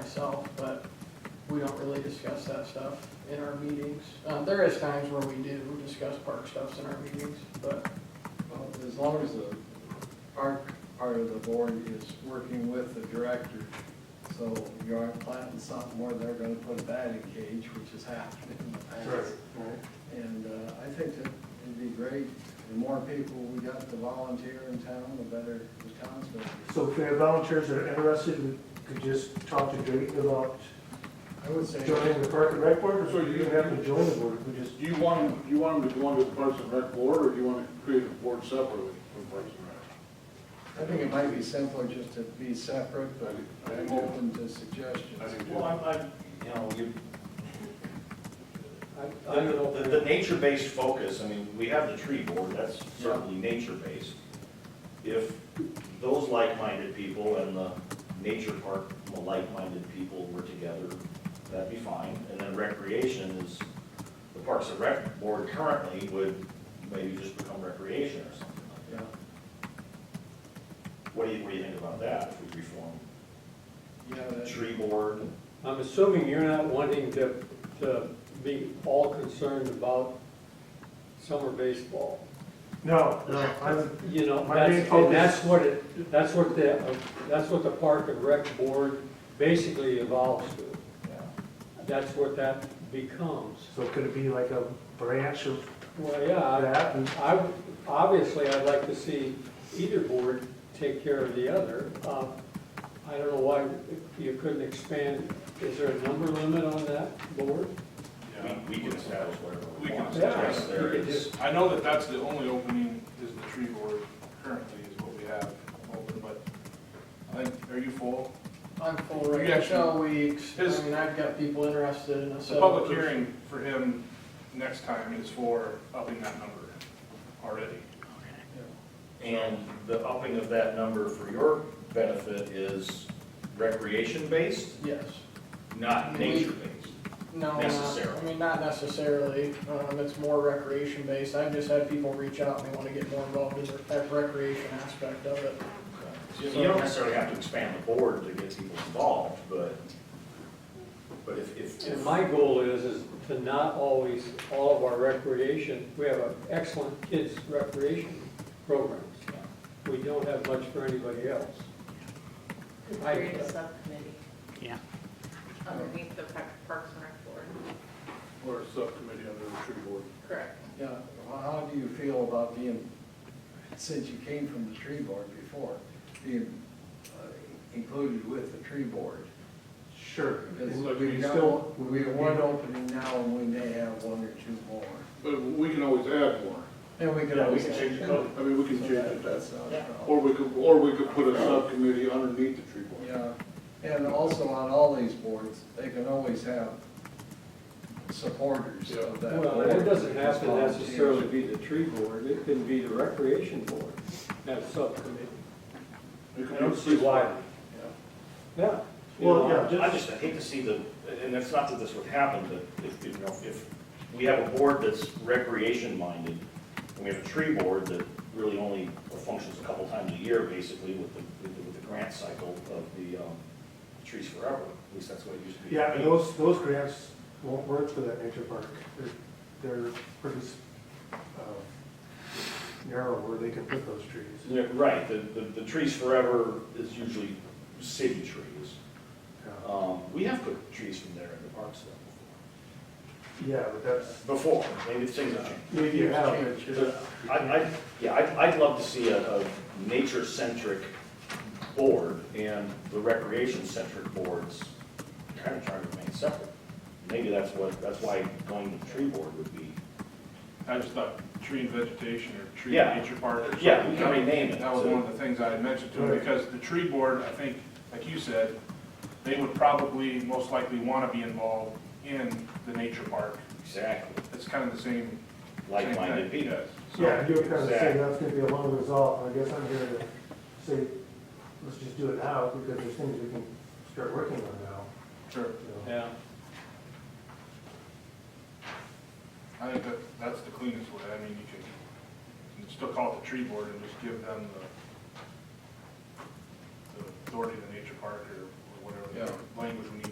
myself, but we don't really discuss that stuff in our meetings. Uh, there is times where we do discuss park stuffs in our meetings, but Well, As long as the park part of the board is working with the director, so you aren't planting something where they're gonna put a bat in a cage, which has happened in the past. And uh, I think that it'd be great, the more people we got to volunteer in town, the better the town's gonna be. So if there are volunteers that are interested, we could just talk to Drayton about I would say, joining the Park and Rec Board, or do you have to join the board, we just, Do you want, do you want them to go under the Parks and Rec Board, or do you want to create a board separately from Parks and Rec? I think it might be simpler just to be separate, but I'm open to suggestions. I think Well, so. I'm, I'm, you know, you, I, I don't the, the nature-based focus, I mean, we have the tree board, that's certainly nature-based. If those like-minded people and the nature park, the like-minded people were together, that'd be fine. And then recreation is, the Parks and Rec Board currently would maybe just become recreation or something like Yeah. that. What do you, what do you think about that, if we reform Yeah, the that- tree board? I'm assuming you're not wanting to, to be all concerned about summer baseball. No, no, I'm, You know, My main that's, and focus- that's what it, that's what the, that's what the Park and Rec Board basically evolves to. yeah. That's what that becomes. so could it be like a branch of Well, yeah, I- that, and I, obviously, I'd like to see either board take care of the other. Uh, I don't know why you couldn't expand, is there a number limit on that board? Yeah. We, we can establish whatever We we can want. establish. Yes, there You could is. just- I know that that's the only opening is the tree board currently is what we have open, but I think, are you full? I'm full right You now. actually- Shall we, ex- I His- mean, I've got people interested in a The Uh, several. public hearing for him next time is for upping that number already. And the upping of that number for your benefit is recreation-based, Yes. not nature-based. No, not, I Necessarily. mean, not necessarily. Um, it's more recreation based. I've just had people reach out and they want to get more involved in the recreation aspect of it. So You don't necessarily have to expand the board to get people involved, but, but if, if, And if, my goal is, is to not always, all of our recreation, we have an excellent kids recreation programs. We don't have much for anybody else. Could I- create a subcommittee. Yeah. Underneath the Park- Parks and Rec Board, Or a subcommittee under the tree board. correct. Yeah, well, how do you feel about being, since you came from the tree board before, being uh, included with the tree board? sure. Because Like we we've still- got, we have one opening now and we may have one or two more. But we can always add more, And we could yeah, we always. can change the So code. I mean, we can change that- it, That's not a problem. or we could, or we could put a subcommittee underneath the tree board. Yeah, and also on all these boards, they can always have supporters of that. Well, board. it doesn't have to Volunteers. necessarily be the tree board, it can be the recreation board, have subcommittee. It could I be- don't see why. Yeah. Well, yeah, I just, just, I hate to see the, and it's not that this would happen, but if, you know, if we have a board that's recreation minded, and we have a tree board that really only functions a couple times a year, basically, with the, with the- with the grant cycle of the, um, Trees Forever, at least that's what it used to be. yeah, and those, those grants won't work for that nature park, they're, they're pretty, uh, narrow where they can put those trees. Yeah, Right, the, the, the Trees Forever is usually city trees. Yeah. Um, we have put trees from there in the parks though Yeah, but that's, before. Before, maybe things have changed. maybe you have, it, it's just- I, I, yeah, I'd, I'd love to see a, a nature-centric board and the recreation-centric boards kind of trying to remain separate. Maybe that's what, that's why going to the tree board would be, I just thought tree and vegetation or tree Yeah. and nature park or something. yeah, we can rename it. That was so- one of the things I had mentioned to him, Right. because the tree board, I think, like you said, they would probably most likely want to be involved in the nature park. Exactly, It's kind of the same. like-minded same thing. people. So- yeah, you were kind of saying that's gonna be a long resolve, I guess I'm here to say, let's just do it now, because there's things we can start working on now, Sure. you know. Yeah. I think that, that's the cleanest way. I mean, you can, you can still call it the tree board and just give them the, the authority of the nature park or or whatever, Yeah. language we need